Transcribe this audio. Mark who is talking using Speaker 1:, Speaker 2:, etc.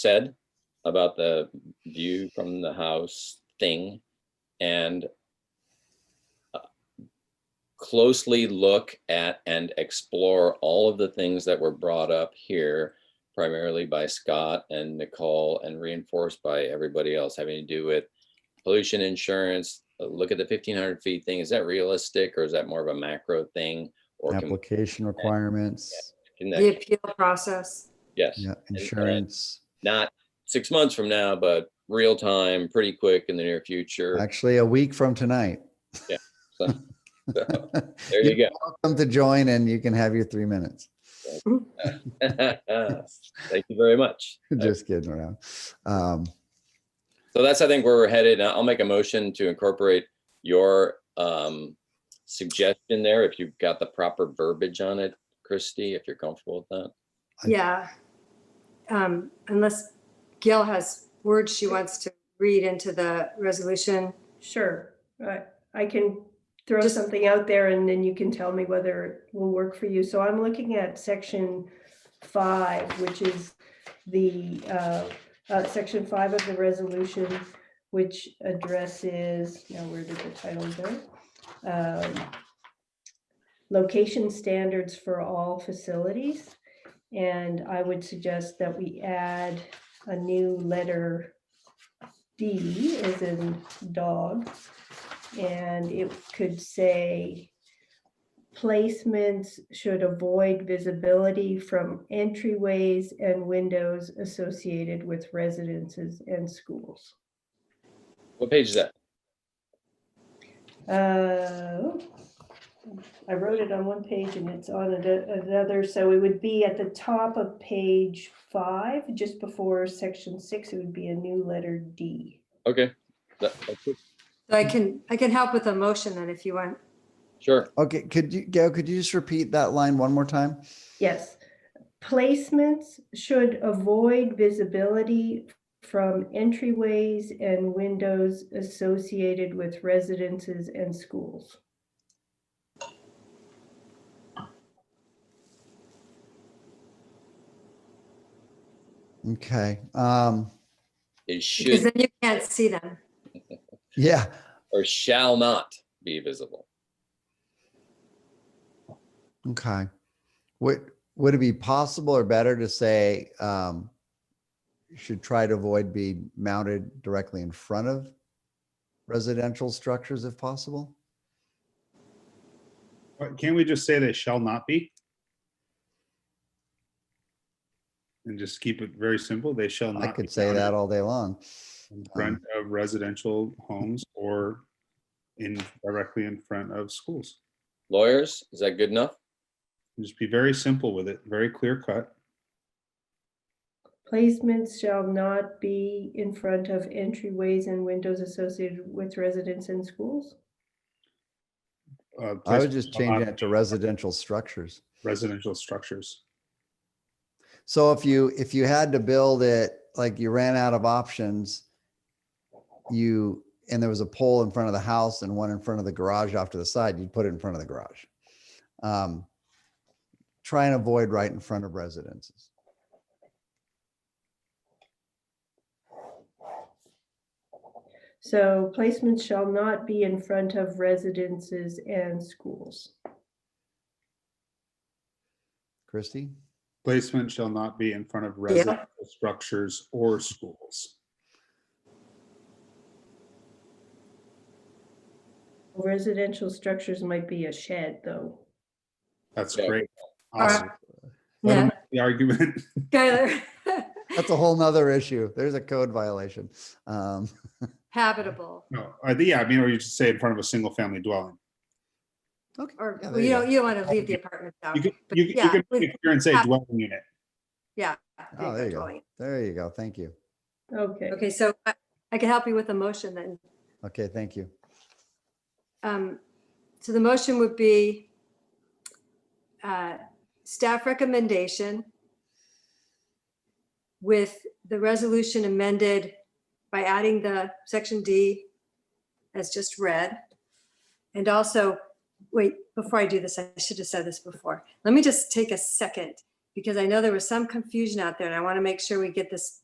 Speaker 1: said about the view from the house thing and uh, closely look at and explore all of the things that were brought up here primarily by Scott and Nicole and reinforced by everybody else having to do with pollution insurance. Uh, Look at the fifteen hundred feet thing. Is that realistic or is that more of a macro thing? Or can,
Speaker 2: application requirements,
Speaker 1: can
Speaker 3: The
Speaker 1: that,
Speaker 3: appeal process.
Speaker 1: yes,
Speaker 2: yeah,
Speaker 1: uh,
Speaker 2: insurance.
Speaker 1: not six months from now, but real time, pretty quick in the near future.
Speaker 2: Actually, a week from tonight.
Speaker 1: Yeah, so-
Speaker 2: You're
Speaker 1: There you
Speaker 2: Welcome to join and you can have your three minutes.
Speaker 1: go. Thank you very much. Uh,
Speaker 2: Just kidding around. Um,
Speaker 1: So that's, I think, where we're headed. I'll make a motion to incorporate your um, suggestion there, if you've got the proper verbiage on it, Christy, if you're comfortable with that.
Speaker 2: I-
Speaker 3: Yeah. Um, Unless Gail has words she wants to read into the resolution.
Speaker 4: Sure, I, I can throw
Speaker 3: Just-
Speaker 4: something out there and then you can tell me whether it will work for you. So I'm looking at section five, which is the, uh, uh, section five of the resolution, which addresses, now where did the title go? Um, Location standards for all facilities. And I would suggest that we add a new letter D is in dog. And it could say placements should avoid visibility from entryways and windows associated with residences and schools.
Speaker 1: What page is that?
Speaker 4: Uh, I wrote it on one page and it's on ano- another, so it would be at the top of page five, just before section six, it would be a new letter D.
Speaker 1: Okay. That- that's it.
Speaker 3: So I can, I can help with a motion then if you want.
Speaker 1: Sure.
Speaker 2: Okay, could you, Gail, could you just repeat that line one more time?
Speaker 4: Yes, placements should avoid visibility from entryways and windows associated with residences and schools.
Speaker 2: Okay, um,
Speaker 1: It
Speaker 3: Because
Speaker 1: should
Speaker 3: then you can't see them.
Speaker 2: yeah,
Speaker 1: or shall not be visible.
Speaker 2: okay. Would, would it be possible or better to say, um, should try to avoid being mounted directly in front of residential structures if possible?
Speaker 5: But Can't we just say they shall not be? And just keep it very simple. They shall not.
Speaker 2: I
Speaker 5: be
Speaker 2: could say
Speaker 5: mounted
Speaker 2: that all day long.
Speaker 5: In front of residential homes or in directly in front of schools.
Speaker 1: Lawyers, is that good enough?
Speaker 5: Just be very simple with it, very clear cut.
Speaker 4: Placements shall not be in front of entryways and windows associated with residents and schools.
Speaker 5: Uh,
Speaker 2: I would
Speaker 5: placement
Speaker 2: just
Speaker 5: shall
Speaker 2: change
Speaker 5: not
Speaker 2: that to
Speaker 5: be
Speaker 2: residential structures.
Speaker 5: Residential structures.
Speaker 2: So if you, if you had to build it, like you ran out of options, you, and there was a pole in front of the house and one in front of the garage off to the side, you'd put it in front of the garage. Um, Try and avoid right in front of residences.
Speaker 4: So placements shall not be in front of residences and schools.
Speaker 2: Christie?
Speaker 5: Placement shall not be in front of residential structures or schools.
Speaker 4: Residential structures might be a shed, though.
Speaker 5: That's
Speaker 1: Yeah.
Speaker 5: great.
Speaker 3: All right.
Speaker 5: Awesome. Let
Speaker 3: Yeah,
Speaker 5: 'em make The argument.
Speaker 3: Skylar,
Speaker 2: That's a whole nother issue. There's a code violation. Um,
Speaker 3: habitable.
Speaker 5: No, I- yeah, I mean, or you should say in front of a single family dwelling.
Speaker 2: Okay.
Speaker 3: Or
Speaker 2: yeah,
Speaker 3: well,
Speaker 2: there
Speaker 3: you
Speaker 2: you
Speaker 3: don't,
Speaker 2: go.
Speaker 3: you don't want to leave the apartment out.
Speaker 5: You could,
Speaker 3: but
Speaker 5: you could- you
Speaker 3: yeah,
Speaker 5: could
Speaker 3: with-
Speaker 5: make it clear and say
Speaker 3: yeah.
Speaker 5: dwelling unit.
Speaker 3: Yeah.
Speaker 2: Oh, there you go.
Speaker 3: totally.
Speaker 2: There you go. Thank you.
Speaker 4: Okay,
Speaker 3: Okay, so I I can help you with a motion then.
Speaker 2: Okay, thank you.
Speaker 3: Um, So the motion would be uh, staff recommendation with the resolution amended by adding the section D as just read. And also, wait, before I do this, I should have said this before. Let me just take a second because I know there was some confusion out there and I want to make sure we get this